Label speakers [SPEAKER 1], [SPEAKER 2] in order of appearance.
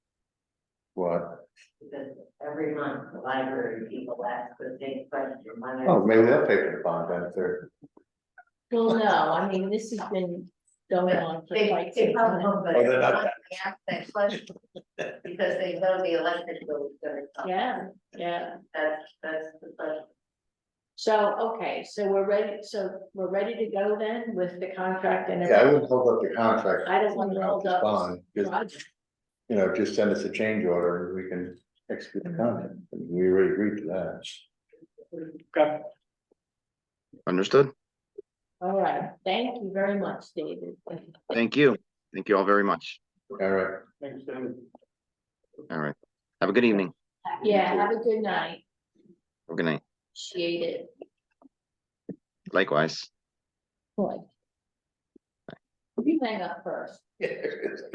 [SPEAKER 1] What?
[SPEAKER 2] Because every month, the library people ask the same question. when I-
[SPEAKER 1] Oh, maybe they'll pay for the bond out there.
[SPEAKER 3] Well, no, I mean, this has been going on for
[SPEAKER 2] They,
[SPEAKER 3] quite
[SPEAKER 2] they
[SPEAKER 3] some
[SPEAKER 2] come
[SPEAKER 3] time.
[SPEAKER 2] home, but
[SPEAKER 1] Oh, they're
[SPEAKER 2] every
[SPEAKER 1] not
[SPEAKER 2] month they ask that question. Because they know the electric bill is gonna come.
[SPEAKER 3] Yeah, yeah.
[SPEAKER 2] That's, that's the question.
[SPEAKER 3] So, okay, so we're ready, so we're ready to go then with the contract and
[SPEAKER 1] Yeah, I
[SPEAKER 3] everything.
[SPEAKER 1] wouldn't hold up the contract.
[SPEAKER 3] I don't want to hold up.
[SPEAKER 1] Bond,
[SPEAKER 3] this
[SPEAKER 1] just,
[SPEAKER 3] project.
[SPEAKER 1] you know, just send us a change order and we can execute the contract. We already agreed to that.
[SPEAKER 4] Understood.
[SPEAKER 3] All right, thank you very much, David.
[SPEAKER 4] Thank you. Thank you all very much.
[SPEAKER 1] All right.
[SPEAKER 4] All right. Have a good evening.
[SPEAKER 3] Yeah, have a good night.
[SPEAKER 4] Have a Good night.
[SPEAKER 3] Appreciate it.
[SPEAKER 4] Likewise.
[SPEAKER 3] Boy. You hang up first.
[SPEAKER 1] Yeah.